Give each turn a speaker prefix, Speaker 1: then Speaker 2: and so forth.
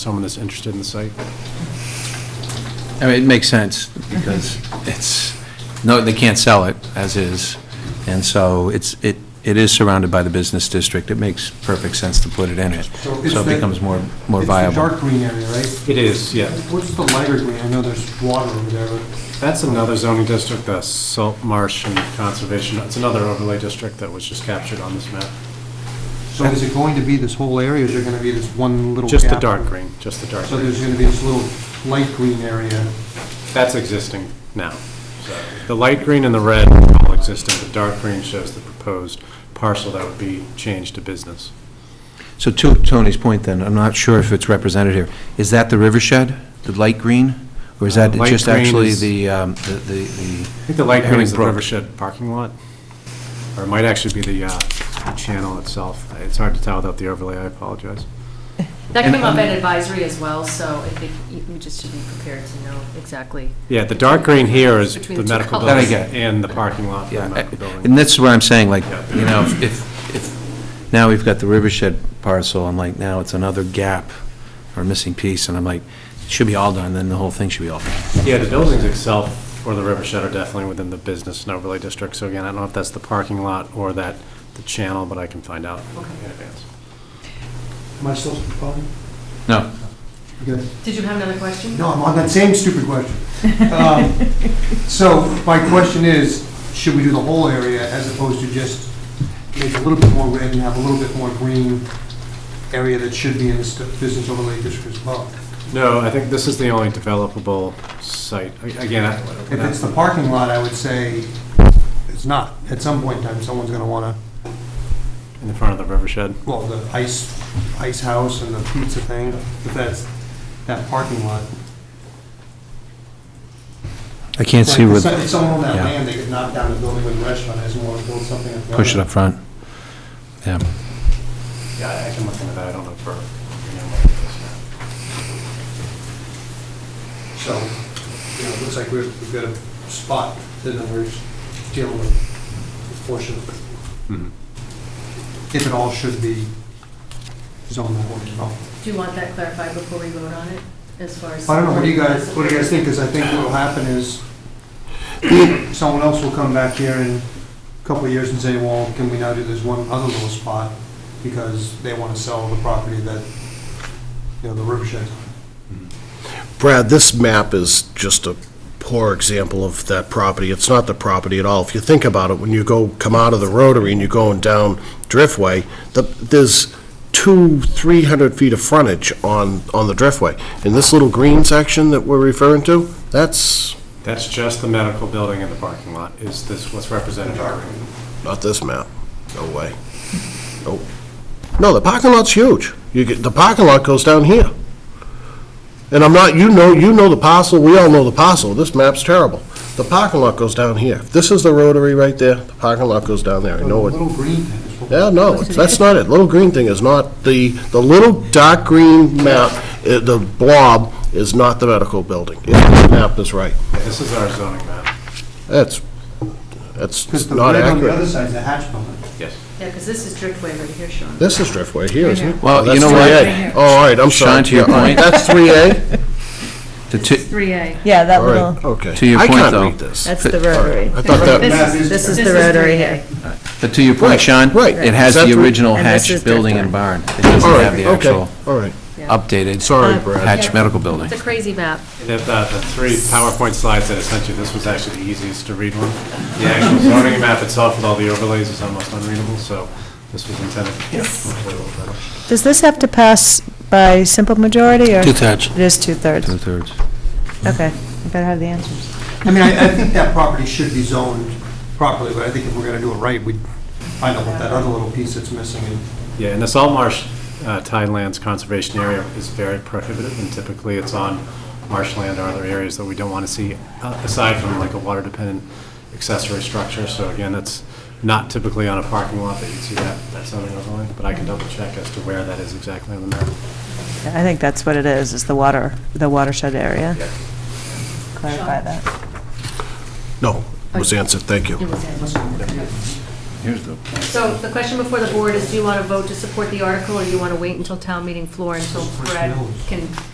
Speaker 1: someone that's interested in the site.
Speaker 2: I mean, it makes sense, because it's, no, they can't sell it as is, and so it's, it, it is surrounded by the business district, it makes perfect sense to put it in it,
Speaker 3: So it's
Speaker 2: so it
Speaker 3: the-
Speaker 2: becomes more, more
Speaker 3: It's the
Speaker 2: viable.
Speaker 3: dark green area, right?
Speaker 1: It is, yeah.
Speaker 3: What's the lighter green? I know there's water over there, but
Speaker 1: That's another zoning district, the salt marsh and conservation, it's another overlay district that was just captured on this map.
Speaker 3: so is it going to be this whole area, or is there going to be this one little
Speaker 1: Just the
Speaker 3: gap?
Speaker 1: dark green, just the dark
Speaker 3: So
Speaker 1: green.
Speaker 3: there's going to be this little light green area.
Speaker 1: That's existing now. So The light green and the red are all existing, the dark green shows the proposed parcel that would be changed to business.
Speaker 2: So to Tony's point then, I'm not sure if it's represented here, is that the river shed, the light green? Or is
Speaker 1: Uh,
Speaker 2: that
Speaker 1: light
Speaker 2: just
Speaker 1: green
Speaker 2: actually
Speaker 1: is-
Speaker 2: the, um, the, the- the,
Speaker 1: I think the light green is the
Speaker 2: Herring Brook.
Speaker 1: Rivershed parking lot, or it might actually be the uh, the channel itself. It's hard to tell without the overlay, I apologize.
Speaker 4: That
Speaker 2: And-
Speaker 4: came up at advisory as well, so I think you- we just should be prepared to know exactly.
Speaker 1: Yeah, the dark green here is
Speaker 4: Between
Speaker 1: the
Speaker 4: the two
Speaker 1: medical
Speaker 4: colours.
Speaker 1: building
Speaker 2: That I get.
Speaker 1: and the parking lot for the
Speaker 2: yeah,
Speaker 1: medical uh, building.
Speaker 2: and that's what I'm saying, like,
Speaker 1: Yeah.
Speaker 2: you know, if, if, now we've got the river shed parcel, and like, now it's another gap, or missing piece, and I'm like, it should be all done, then the whole thing should be all done.
Speaker 1: Yeah, the buildings itself or the river shed are definitely within the business and overlay district. So again, I don't know if that's the parking lot or that, the channel, but I can find out in advance.
Speaker 3: Am I still talking?
Speaker 2: No.
Speaker 3: Okay.
Speaker 4: Did you have another question?
Speaker 3: No, I'm on that same stupid question. Um, So my question is, should we do the whole area as opposed to just make a little bit more red and have a little bit more green area that should be in this business overlay district as well?
Speaker 1: No, I think this is the only developable site. A- Again, I-
Speaker 3: If it's the parking lot, I would say it's not. At some point in time, someone's going to want
Speaker 1: in the front of the river shed.
Speaker 3: to, well, the ice, ice house and the pizza thing, if that's that parking lot.
Speaker 2: I can't see
Speaker 3: Like,
Speaker 2: where,
Speaker 3: if so- If someone on that
Speaker 2: yeah.
Speaker 3: land, they could knock down the building with a restaurant, as well want to build something. at the
Speaker 2: push it
Speaker 3: other.
Speaker 2: up front. Yeah.
Speaker 1: Yeah, I- I can look into that. I don't know for.
Speaker 3: So, you know, it looks like we've, we've got a spot that we're dealing with, fortunately.
Speaker 1: Mm-hmm.
Speaker 3: If it all should be zoned that way, no.
Speaker 4: Do you want that clarified before we vote on it, as far as?
Speaker 3: I don't know, what do you guys, what do you guys think, because I think what'll happen is, someone else will come back here in a couple of years and say, well, can we now do this one other little spot? Because they want to sell the property that, you know, the river sheds.
Speaker 5: Brad, this map is just a poor example of that property. It's not the property at all. If you think about it, when you go, come out of the rotary and you're going down Driftway, the, there's two, 300 feet of frontage on, on the Driftway. And this little green section that we're referring to, that's
Speaker 1: That's just the medical building and the parking lot. Is this what's represented?
Speaker 5: not this map. No way. Nope. No, the parking lot's huge. You get, the parking lot goes down here. And I'm not, you know, you know the parcel, we all know the parcel, this map's terrible. The parking lot goes down here. If This is the rotary right there, the parking lot goes down there, I know it.
Speaker 3: Little green thing is what
Speaker 5: Yeah, no, that's not it. Little green thing is not, the, the little dark green map, eh, the blob is not the medical building. Yeah, The map is right.
Speaker 1: This is our zoning map.
Speaker 5: That's, that's
Speaker 3: Because the
Speaker 5: not
Speaker 3: red on the other
Speaker 5: accurate.
Speaker 3: side is a hatch building.
Speaker 1: Yes.
Speaker 4: Yeah, because this is Driftway right here, Sean.
Speaker 5: This is Driftway here, isn't it?
Speaker 2: Well,
Speaker 5: Oh,
Speaker 2: you
Speaker 5: that's
Speaker 2: know what?
Speaker 5: 3A. Oh, all right, I'm sorry.
Speaker 2: Sean, to your
Speaker 5: Yeah, all right.
Speaker 2: point.
Speaker 5: That's 3A?
Speaker 2: The two,
Speaker 4: 3A.
Speaker 6: Yeah, that
Speaker 5: All
Speaker 6: little,
Speaker 5: right, okay.
Speaker 2: To your point,
Speaker 5: I
Speaker 2: though.
Speaker 5: can't read this.
Speaker 6: that's the rotary.
Speaker 5: I thought that,
Speaker 3: This is-
Speaker 6: This is
Speaker 4: This
Speaker 6: the
Speaker 4: is
Speaker 6: rotary
Speaker 4: 3A.
Speaker 6: here.
Speaker 2: but to your
Speaker 5: Right,
Speaker 2: point, Sean,
Speaker 5: right.
Speaker 2: it has the
Speaker 5: Exactly.
Speaker 2: original
Speaker 6: And this
Speaker 2: hatch
Speaker 6: is
Speaker 2: building and
Speaker 6: different.
Speaker 2: barn. It doesn't
Speaker 5: all
Speaker 2: have
Speaker 5: right,
Speaker 2: the
Speaker 5: okay,
Speaker 2: actual
Speaker 5: all right.
Speaker 2: updated.
Speaker 5: Sorry,
Speaker 6: Uh,
Speaker 5: Brad.
Speaker 2: Hatch medical building.
Speaker 4: It's a crazy map.
Speaker 1: The, uh, the the three PowerPoint slides that I sent you, this was actually the easiest to read one. The actual zoning map itself with all the overlays is almost unreadable, so this was intended. Yes.
Speaker 6: Does this have to pass by simple majority, or?
Speaker 2: Two-thirds.
Speaker 6: It is two-thirds.
Speaker 2: Two-thirds.
Speaker 6: Okay, I better have the answers.
Speaker 3: I mean, I, I think that property should be zoned properly, but I think if we're gonna do it right, we'd find out what that other little piece that's missing and
Speaker 1: Yeah, and the salt marsh uh, tidelands conservation area is very prohibitive, and typically it's on marshland or other areas that we don't want to see, uh, aside from like a water-dependent accessory structure. So again, that's not typically on a parking lot that you'd see that, that zoning overlay, but I can double-check as to where that is exactly on the map.
Speaker 6: I think that's what it is, is the water, the watershed area.
Speaker 1: Yeah.
Speaker 6: Clarify that.
Speaker 5: No, was answered, thank you.
Speaker 4: It was-
Speaker 2: Here's the.
Speaker 4: So the question before the board is, do you want to vote to support the article, or do you want to wait until town meeting floor until Brad can